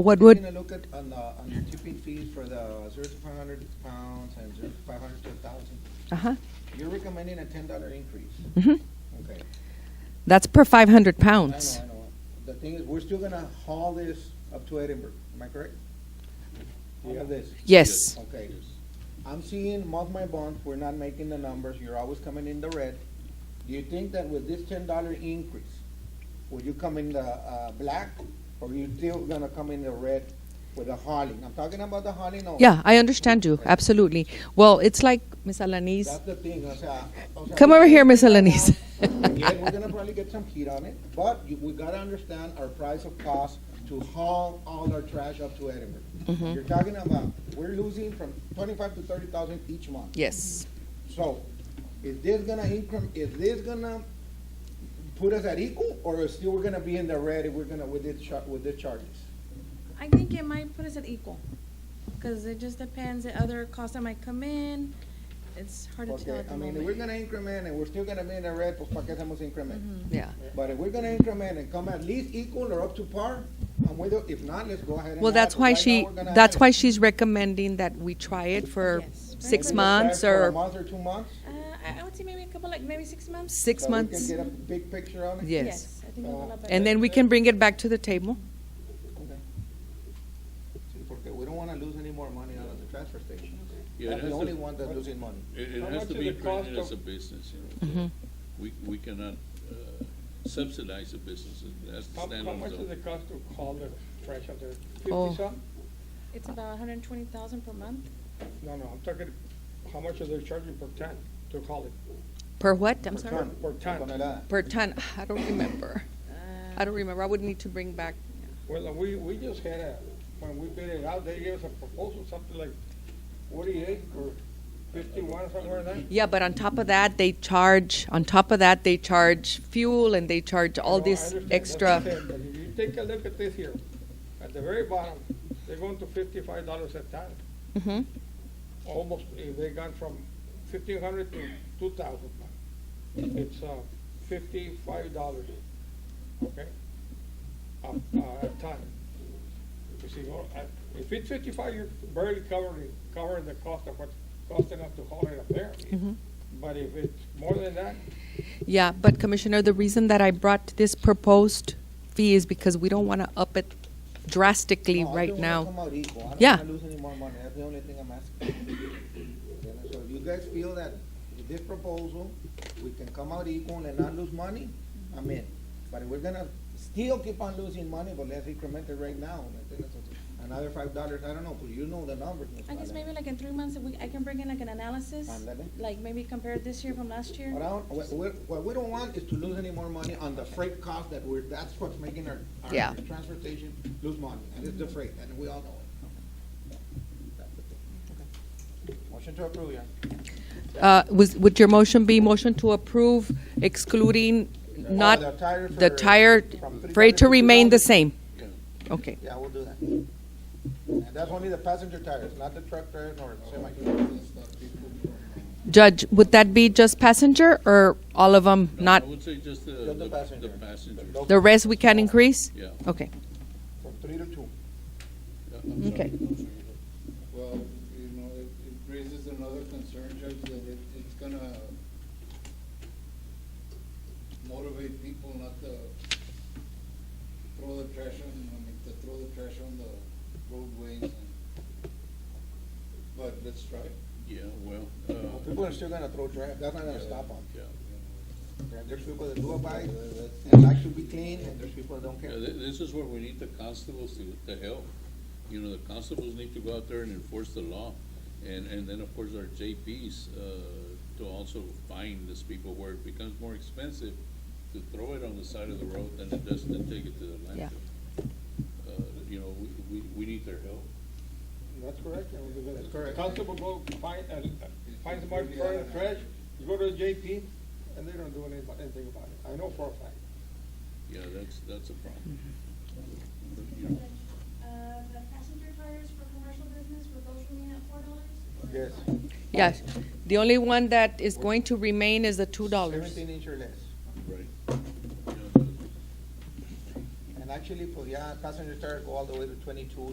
What We're would, gonna look at, on the, on the tipping fees for the zero to five hundred pounds and zero to five hundred to a thousand, uh-huh, you're recommending a ten dollar increase? Mhm. Okay, that's per 500 I know, pounds. I know. The thing is, we're still gonna haul this up to Edinburgh, am I correct? All of this? Yes. Okay. I'm seeing month by month, we're not making the numbers, you're always coming in the red. Do you think that with this ten dollar increase, will you come in the, uh, black, or you still gonna come in the red with the hauling? I'm talking about the hauling only. Yeah, I understand you, absolutely. Well, it's like, Ms. Alanis, That's the thing, o sea, o sea, Come we over can here, Miss figure it Alanis. out. Yeah, we're gonna probably get some heat on it, but you, we gotta understand our price of cost to haul all our trash up to Edinburgh. Mm-hmm. You're talking about, we're losing from twenty-five to thirty thousand each month. yes. So, is this gonna increment, is this gonna put us at equal, or is still we're gonna be in the red if we're gonna, with this char, with the charges? I think it might put us at equal, because it just depends the other costs that might come in. It's hard to tell Okay, at I the mean, if we're gonna moment. increment and we're still gonna be in the red, pues pa' qué hacemos increment? Mm-hmm. Yeah. But if we're gonna increment and come at least equal or up to par, I'm with you. If not, let's go ahead and. Well, have that's it. why Right she, now, we're gonna that's have why it. she's recommending that we try it for Yes. six Maybe months For a or month or two months? Uh, I, I would say maybe a couple, like, maybe six months? six so months. We can get a big picture on it? Yes. I think we'll Uh, have a- And then we can bring it back to the table. Okay. Sí, Porque we don't wanna lose any more money out of the transfer station. Yeah, it That's has the only to- one that's losing money. It, it How has to much be is the cost branded as a of- business, you Mm-hmm. know. so We, we cannot uh, subsidize the businesses, that's the How, how standard. much of- does it cost to haul the trash out there? Oh. Fifty some? It's about hundred and twenty thousand per month. No, no, I'm talking, how much are they charging per ton to haul it? Per what? I'm Per sorry? ton, Per ton. tonelada. Per ton. I don't remember. I don't remember. I would need to bring back. Well, we, we just had a, when we bid it out, they gave us a proposal, something like forty-eight or fifty-one, somewhere in there. Yeah, but on top of that, they charge, on top of that, they charge fuel and they charge all No, I this understand. That's what extra. I'm saying, but if you take a look at this here, at the very bottom, they're going to fifty-five dollars a ton. Mhm. Almost, eh, they gone from fifteen hundred to two thousand. It's, uh, fifty-five dollars, okay? A, a ton. You see, well, I- if it's fifty-five, you're barely covering, covering the cost of what's costing us to haul it up there. But if it's more than that, Yeah, but Commissioner, the reason that I brought this proposed fee is because we don't want to up it drastically No, I right just wanna now. come out equal. I don't Yeah. wanna lose any more money, that's the only thing I'm asking. You know, So if you guys feel that with this proposal, we can come out equal and not lose money, I'm in. But if we're gonna still keep on losing money, but let's increment it right now, I think that's a- another five dollars, I don't know, but you know the numbers. Ms. I guess Valen. maybe like in three months, we, I can bring in like an analysis, Ándale. like maybe compare this year from last year. What I don't, what, we're- what we don't want is to lose any more money on the freight cost that we're, that's what's making our, Yeah. our transportation lose money, and it's the freight, and we all know it. That's the thing. Motion to approve, yeah. Uh, was- Would your motion be motion to approve excluding not, the tire the for- tire from freight to 3,000 remain the same? Okay. Yeah, we'll do that. And that's only the passenger tires, not the truck tires nor the semi. Judge, would that be just passenger or all of them No, not? I would say just the, the the passenger. the passenger. The- The rest we can increase? Yeah. Okay. From three to two. Yeah, I'm sorry, Okay. I'm sorry. Well, you know, it it raises another concern, Judge, that it, it's gonna motivate people not to throw the trash on, I mean, to throw the trash on the roadways and, but let's try it. Yeah, well, uh, People are still gonna throw trash, that's not gonna stop them. yeah, There's people that do abide and like to be clean, and there's people that don't yeah, care. thi- this is where we need the constables to, to help. You know, the constables need to go out there and enforce the law. And, and then, of course, our JPs, uh, to also find these people where it becomes more expensive to throw it on the side of the road than it does to take it to the Yeah. landfill. Uh, you know, we, we, we need their help. That's correct. and we- That's correct. Constable go find, uh, find somebody throwing trash, you go to the JP, and they don't do anything about anything about it. I know for a fact. Yeah, that's, that's a problem. Mm-hmm. Uh, the passenger tires for commercial business were both remaining at four dollars? Yes. Yes. The only one that is going to remain is the $2. Seventeen inch or less. Right. And I actually, for, yeah, passenger tires uh, go all the way to twenty-two,